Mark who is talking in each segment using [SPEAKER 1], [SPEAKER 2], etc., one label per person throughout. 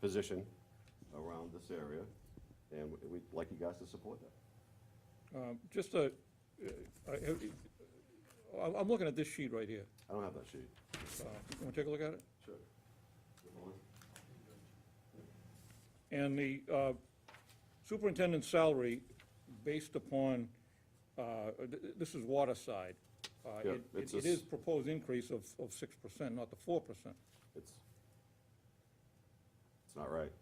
[SPEAKER 1] position around this area, and we- we'd like you guys to support that.
[SPEAKER 2] Um, Just a, uh, I- I- I'm looking at this sheet right here.
[SPEAKER 1] I don't have that sheet.
[SPEAKER 2] Uh, You want to take a look at it?
[SPEAKER 1] Sure.
[SPEAKER 2] And the uh, superintendent's salary, based upon, uh, th- this is Waterside. Uh,
[SPEAKER 1] Yeah,
[SPEAKER 2] it-
[SPEAKER 1] it's
[SPEAKER 2] It
[SPEAKER 1] a
[SPEAKER 2] it
[SPEAKER 1] s-
[SPEAKER 2] is proposed increase of of 6%, not the 4%.
[SPEAKER 1] It's, it's not right.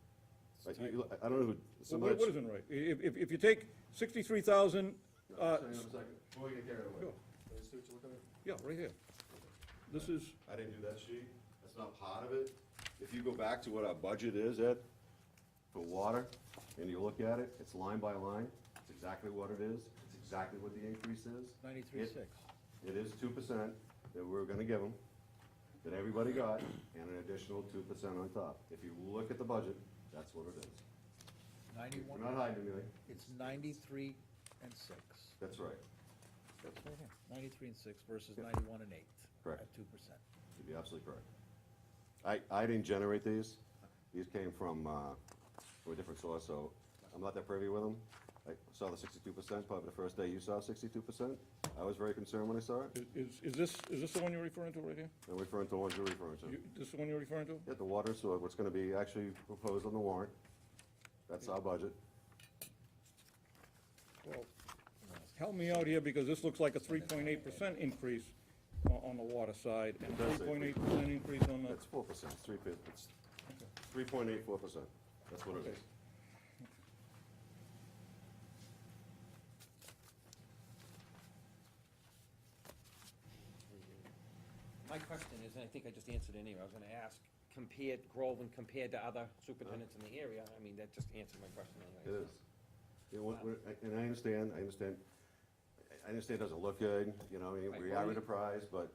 [SPEAKER 1] Like, you- you- I don't know who,
[SPEAKER 2] Well,
[SPEAKER 1] somebody.
[SPEAKER 2] What what isn't right? I- If if- if you take 63,000, uh,
[SPEAKER 1] Before you get carried
[SPEAKER 2] Sure.
[SPEAKER 1] Can you see what you're looking at?
[SPEAKER 2] yeah, right here. This is,
[SPEAKER 1] I didn't do that sheet. That's not part of it. If you go back to what our budget is, Ed, for water, and you look at it, it's line by line. It's exactly what it is. It's exactly what the increase is. It-
[SPEAKER 3] 93.6.
[SPEAKER 1] It is two percent that we're gonna give them, that everybody got, and an additional two percent on top. If you look at the budget, that's what it is. We're not
[SPEAKER 3] 91,
[SPEAKER 1] hiding anything.
[SPEAKER 3] it's 93 and 6.
[SPEAKER 1] That's right.
[SPEAKER 3] That's right here. 93 and 6 versus 91 and 8.
[SPEAKER 1] Correct.
[SPEAKER 3] At 2%.
[SPEAKER 1] You'd be absolutely correct. I, I didn't generate these. These came from, uh, from a different source, so I'm not that privy with them. I saw the sixty-two percent, probably the first day you saw sixty-two percent. I was very concerned when I saw it.
[SPEAKER 2] is- is is this, is this the one you're referring to right here?
[SPEAKER 1] I'm referring to the ones you're referring to.
[SPEAKER 2] You- This the one you're referring to?
[SPEAKER 1] Yeah, the water, so what's gonna be actually proposed on the warrant. That's our budget.
[SPEAKER 2] Well, help me out here, because this looks like a three point eight percent increase o- on the water side, and
[SPEAKER 1] It does say
[SPEAKER 2] three point eight percent increase on the,
[SPEAKER 1] That's four percent, it's three, fif- it's three point eight four percent, that's what it is.
[SPEAKER 4] My question is, and I think I just answered it anyway, I was gonna ask, compared Groveland compared to other superintendents in the area, I mean, that just answered my question
[SPEAKER 1] It
[SPEAKER 4] anyway.
[SPEAKER 1] is. You know, what- what- I- and I understand, I understand, I understand it doesn't look good, you know, I mean,
[SPEAKER 4] Right,
[SPEAKER 1] we
[SPEAKER 4] well,
[SPEAKER 1] are
[SPEAKER 4] you-
[SPEAKER 1] enterprised, but,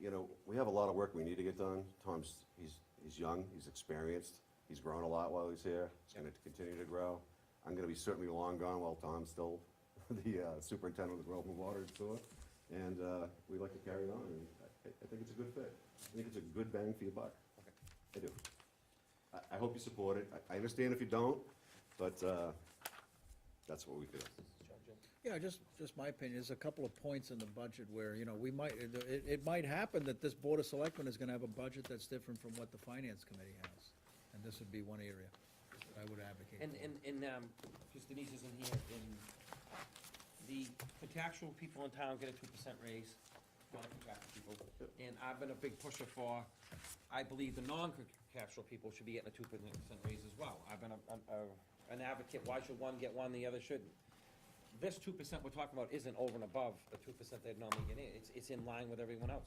[SPEAKER 1] you know, we have a lot of work we need to get done. Tom's, he's, he's young, he's experienced, he's grown a lot while he's here, he's gonna continue to grow. I'm gonna be certainly long gone while Tom's still the uh, superintendent of the Groveland Water and Sewer. And, uh, we'd like to carry on, and I, I think it's a good fit. I think it's a good bang for your buck. I do. I, I hope you support it. I, I understand if you don't, but, uh, that's what we feel.
[SPEAKER 3] Yeah, just, just my opinion, there's a couple of points in the budget where, you know, we might, it, it- it might happen that this Board of Selectmen is gonna have a budget that's different from what the Finance Committee has. And this would be one area that I would advocate.
[SPEAKER 4] And,
[SPEAKER 3] for.
[SPEAKER 4] and, and, um, because Denise isn't here, and the contractual people in town get a two percent raise, non-contractual people. And I've been a big pusher for, I believe the non-contractual people should be getting a two percent raise as well. I've been a, a- an advocate, why should one get one, the other shouldn't? This two percent we're talking about isn't over and above the two percent they'd normally get in, it's, it's in line with everyone else,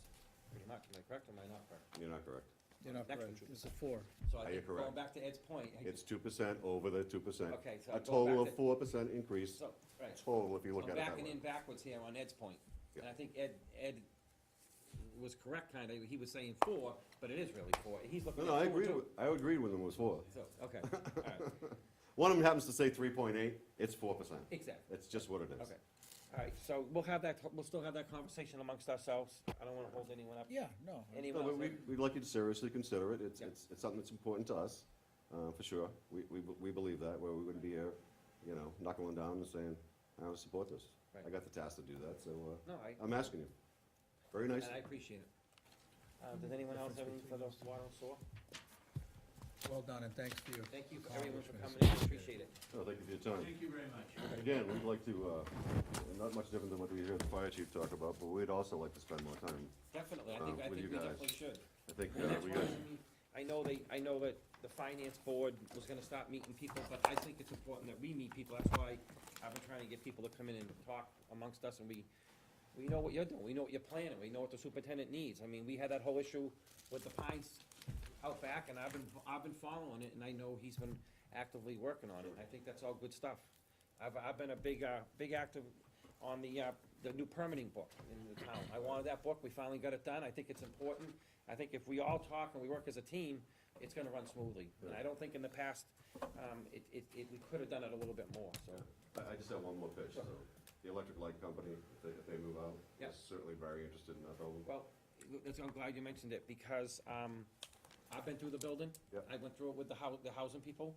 [SPEAKER 4] pretty much, am I correct or am I not correct?
[SPEAKER 1] You're not correct.
[SPEAKER 3] You're not
[SPEAKER 4] Next
[SPEAKER 3] right.
[SPEAKER 4] one,
[SPEAKER 3] It's a four.
[SPEAKER 4] So
[SPEAKER 1] Are
[SPEAKER 4] I
[SPEAKER 1] you
[SPEAKER 4] think, going
[SPEAKER 1] correct?
[SPEAKER 4] back to Ed's point, I-
[SPEAKER 1] It's two percent over the two percent.
[SPEAKER 4] Okay, so
[SPEAKER 1] A
[SPEAKER 4] I'm going
[SPEAKER 1] total of
[SPEAKER 4] back to-
[SPEAKER 1] four percent increase,
[SPEAKER 4] so, right.
[SPEAKER 1] total, if you look
[SPEAKER 4] I'm
[SPEAKER 1] at it that
[SPEAKER 4] backing in
[SPEAKER 1] way.
[SPEAKER 4] backwards here on Ed's point, and
[SPEAKER 1] Yeah.
[SPEAKER 4] I think Ed, Ed was correct, kinda, he was saying four, but it is really four, he's looking
[SPEAKER 1] No,
[SPEAKER 4] at
[SPEAKER 1] no, I
[SPEAKER 4] four
[SPEAKER 1] agreed
[SPEAKER 4] too.
[SPEAKER 1] with, I agreed with them, it was four.
[SPEAKER 4] So, okay, alright,
[SPEAKER 1] One of them happens to say three point eight, it's four percent.
[SPEAKER 4] exactly,
[SPEAKER 1] It's just what it is.
[SPEAKER 4] okay. Alright, so we'll have that, we'll still have that conversation amongst ourselves, I don't wanna hold anyone up,
[SPEAKER 3] Yeah, no.
[SPEAKER 1] No,
[SPEAKER 4] anyone else.
[SPEAKER 1] but we, we'd like you to seriously consider it, it's,
[SPEAKER 4] Yeah.
[SPEAKER 1] it's, it's something that's important to us, uh, for sure. We, we, we believe that, where we wouldn't be here, you know, knocking one down and saying, I don't support this. I
[SPEAKER 4] Right.
[SPEAKER 1] got the task to do that, so, uh,
[SPEAKER 4] No, I,
[SPEAKER 1] I'm asking you. Very nice.
[SPEAKER 4] and I appreciate it. Uh, does anyone else have anything for those water and sewer?
[SPEAKER 3] Well done, and thanks to you.
[SPEAKER 4] Thank you, for everyone for coming
[SPEAKER 3] Accomplishments.
[SPEAKER 4] in, appreciate it.
[SPEAKER 1] No, thank you for your time.
[SPEAKER 5] Thank you very much.
[SPEAKER 1] Again, we'd like to, uh, not much different than what we hear the fire chief talk about, but we'd also like to spend more time.
[SPEAKER 4] Definitely, I
[SPEAKER 1] Um,
[SPEAKER 4] think, I
[SPEAKER 1] with
[SPEAKER 4] think
[SPEAKER 1] you
[SPEAKER 4] we
[SPEAKER 1] guys.
[SPEAKER 4] definitely should.
[SPEAKER 1] I think
[SPEAKER 4] And
[SPEAKER 1] uh,
[SPEAKER 4] that's
[SPEAKER 1] we
[SPEAKER 4] why,
[SPEAKER 1] got,
[SPEAKER 4] I mean, I know they, I know that the finance board was gonna start meeting people, but I think it's important that we meet people, that's why I've been trying to get people to come in and talk amongst us, and we, we know what you're doing, we know what you're planning, we know what the superintendent needs, I mean, we had that whole issue with the pines out back, and I've been, I've been following it, and I know he's been actively working on it, I think that's all good stuff. I've, I've been a big, uh, big active on the, uh, the new permitting book in the town. I wanted that book, we finally got it done, I think it's important. I think if we all talk and we work as a team, it's gonna run smoothly. And I don't think in the past, um, it, it, it, we could have done it a little bit more, so.
[SPEAKER 1] I, I just have one more pitch, so, the electric light company, if they, if they move out,
[SPEAKER 4] Yeah.
[SPEAKER 1] is certainly very interested in that building.
[SPEAKER 4] Well, that's, I'm glad you mentioned it, because, um, I've been through the building.
[SPEAKER 1] Yep.
[SPEAKER 4] I went through it with the hou- the housing people.